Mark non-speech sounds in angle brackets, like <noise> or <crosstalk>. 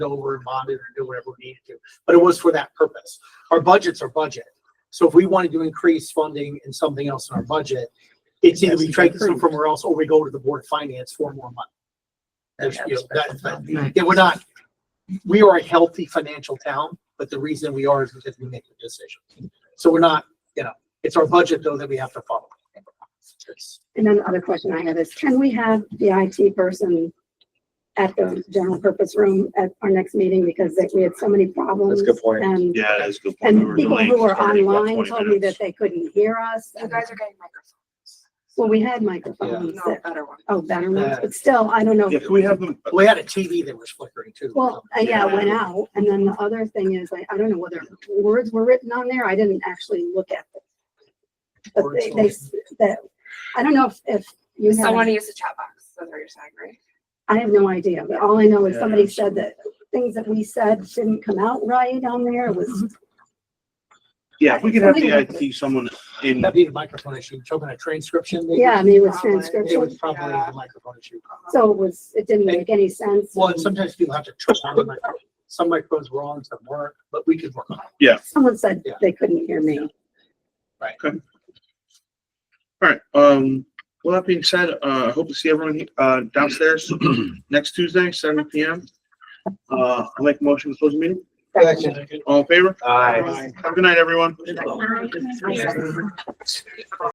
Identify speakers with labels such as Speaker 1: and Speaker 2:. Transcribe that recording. Speaker 1: go over and monitor and do whatever we needed to. But it was for that purpose. Our budgets are budget. So if we wanted to increase funding in something else in our budget, it's either we take some from somewhere else or we go to the board of finance for more money. There's, you know, that- that- yeah, we're not, we are a healthy financial town, but the reason we are is because we make the decisions. So we're not, you know, it's our budget though that we have to follow.
Speaker 2: And then the other question I have is, can we have the IT person at the general purpose room at our next meeting because that- we had so many problems?
Speaker 3: That's a good point.
Speaker 2: And,
Speaker 4: Yeah, that's a good point. We
Speaker 2: and
Speaker 4: were
Speaker 2: people
Speaker 4: delayed
Speaker 2: who were
Speaker 4: starting about
Speaker 2: online
Speaker 4: 20
Speaker 2: told me that
Speaker 4: minutes.
Speaker 2: they couldn't hear us.
Speaker 5: You guys are getting microphones.
Speaker 2: Well, we had microphones
Speaker 5: No,
Speaker 2: that,
Speaker 5: better one.
Speaker 2: oh, better ones,
Speaker 1: Yeah.
Speaker 2: but still, I don't know.
Speaker 4: Yeah, can we have them?
Speaker 1: We had a TV that was flickering too.
Speaker 2: Well, uh, yeah, it went
Speaker 4: Yeah.
Speaker 2: out. And then the other thing is, I, I don't know whether words were written on there. I didn't actually look at them. But
Speaker 1: Words
Speaker 2: they, they, s- that, I don't know if, if you have.
Speaker 5: Someone used a chat box, that's what you're saying, right?
Speaker 2: I have no idea, but all I know is
Speaker 4: Yeah,
Speaker 2: somebody said that things that we said didn't come out right on there It was,
Speaker 4: Yeah, if we could have the IT someone in,
Speaker 1: That'd be the microphone issue, talking a transcription maybe?
Speaker 2: yeah, I mean, it was
Speaker 5: Probably.
Speaker 1: It was
Speaker 2: transcription.
Speaker 1: probably the microphone issue.
Speaker 2: So it was, it didn't make any sense.
Speaker 1: Well, and sometimes people have to turn on the microphone. Some microphones were on, some weren't, but we could work on it.
Speaker 2: Someone said
Speaker 1: Yeah.
Speaker 2: they couldn't hear me.
Speaker 4: all right, um, well, that being said, uh, I hope to see everyone, he- uh, downstairs <clears throat> next Tuesday, seven P M. Uh, I make a motion to close the meeting. All in favor?
Speaker 3: Aye.
Speaker 4: Have a good night, everyone.